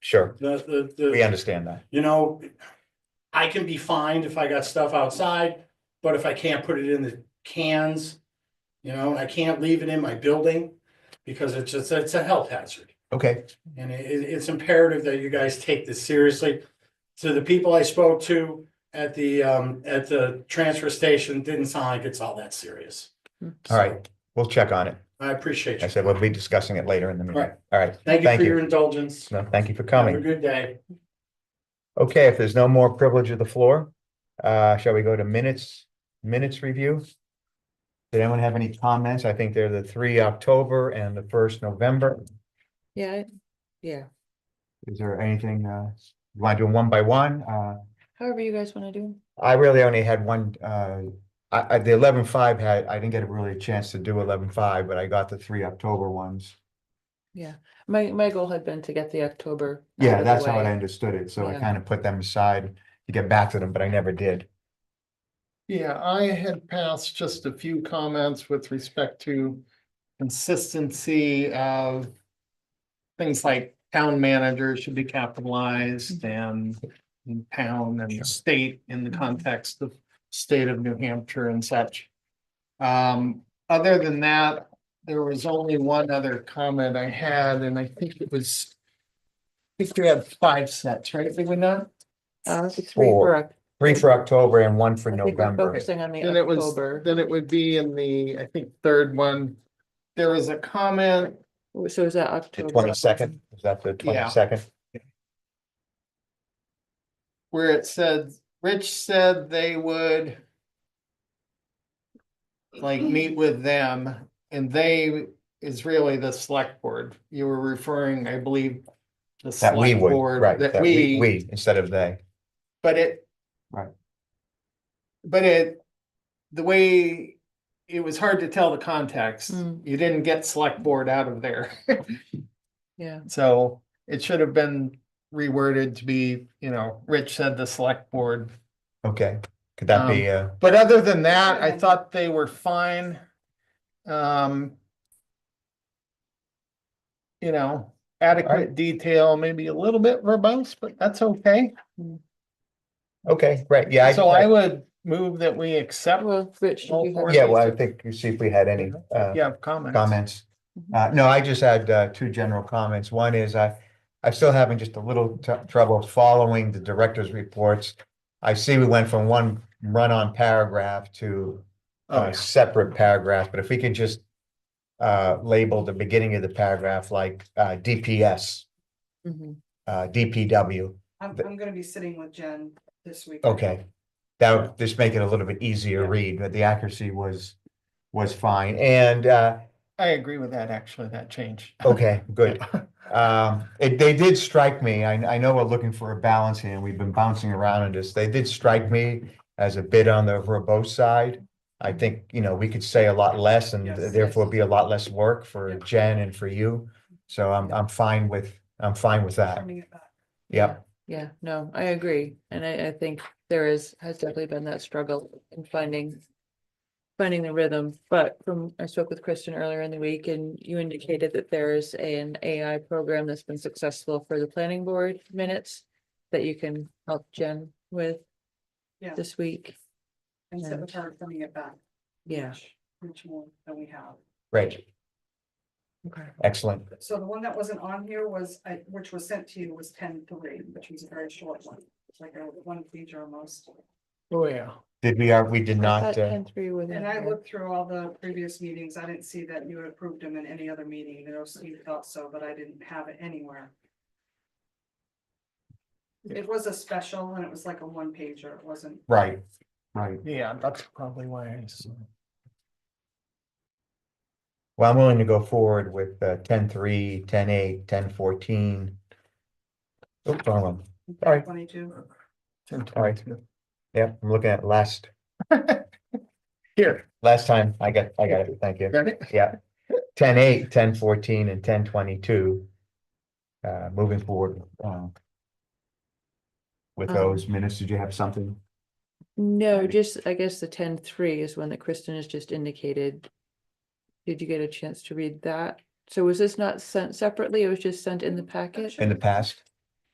Sure, The, the, we the, understand that. you know, I can be fined if I got stuff outside, but if I can't put it in the cans, you know, I can't leave it in my building because it's just, it's a health hazard. Okay, And it, it- it's imperative that you guys take this seriously. To the people I spoke to at the, um, at the transfer station, didn't sound like it's all that serious. all right, we'll check on it. I appreciate I you. said, we'll be discussing it later in the meeting. Right. All right, Thank you thank for you. your indulgence. no, thank you for Have a coming. good day. Okay, if there's no more privilege of the floor, uh, shall we go to minutes, minutes review? Did anyone have any comments? I think they're the three October and the first November. Yeah, I- yeah, Is there anything, uh, you want to do them one by one? Uh, however you guys wanna do. I really only had one, uh, I, I, the eleven five had, I didn't get really a chance to do eleven five, but I got the three October ones. My, my goal had been to get the October. out of Yeah, the that's how way. I understood it, so I Yeah. kind of put them aside to get back to them, but I never did. Yeah, I had passed just a few comments with respect to consistency of things like town manager should be capitalized and and town and state in the context of state of New Hampshire and such. Um, other than that, there was only one other comment I had, and I think it was I think we had five sets, right? Did we not? Uh, it's three for, Oc- Three for October and one for I think we're November. focusing on the Then it was, October, then it would be in the, I think, third one. There was a comment, so is that The October? twenty-second, is that the Yeah. twenty-second? where it said, Rich said they would. Like meet with them and they is really the select board. You were referring, I believe. the That we select would, board, right, That we, we, instead of they. but it. Right. But it, the way, it was hard to tell the context. Mm. You didn't get select board out of there. Yeah, So it should have been reworded to be, you know, Rich said the select board. Okay, could that be, uh, But other than that, I thought they were fine. Um. You know, adequate detail, maybe a little bit verbose, but that's okay. uh, okay, great, yeah. So I would move that we accept. well, Rich, did All you four have- Yeah, well, I think, you see if we had any, uh, Yeah, comments. Mm-hmm. comments. Mhm. Uh, no, I just had, uh, two general comments. One is I, I'm still having just a little t- trouble following the director's reports. I see we went from one run-on paragraph to Oh, a separate paragraph, but if we could just uh, label the beginning of the paragraph like, uh, DPS, Mhm. uh, DPW, I'm, But- I'm gonna be sitting with Jen this week. okay. That would just make it a little bit easier read, but the accuracy was, was fine. And, uh, I agree with that, actually, that change. Okay, good. Um, it, they did strike me, I, I know we're looking for a balance here, and we've been bouncing around on this, they did strike me as a bit on the verbose side. I think, you know, we could say a lot less and Yes. therefore be a lot less work for Yeah. Jen and for you. So I'm, I'm fine with, I'm fine with that, Turning it back. yeah, Yeah, no, I agree, and I, I think there is, has definitely been that struggle in finding. Finding the rhythm, but from, I spoke with Kristen earlier in the week and you indicated that there is an AI program that's been successful for the planning board minutes. That you can help Jen with. Yeah. This week, And sit with her, turning it back. yeah, much- Much more than we have. great, okay, excellent, So the one that wasn't on here was, I- which was sent to you was ten three, which was a very short one. It's like a one page almost. Oh, yeah. did we are, we did not, uh, And three with. And I looked through all the previous meetings. I didn't see that you had approved them in any other meeting. I know Steve thought so, but I didn't have it anywhere. It was a special and it was like a one pager. It wasn't right, right. Yeah, that's probably why I. s- Well, I'm willing to go forward with uh, 10 3, 10 8, 10 14. Oops, wrong one. All right. twenty-two. All right. Yeah, I'm looking at last, Here, last time I got, I got it. Thank you. got it? Yeah. 10 8, 10 14, and 10 22. Uh, moving forward. um, With Um, those minutes, did you have something? No, just, I guess the ten three is one that Kristen has just indicated. Did you get a chance to read that? So was this not sent separately? It was just sent in the packet? In the past?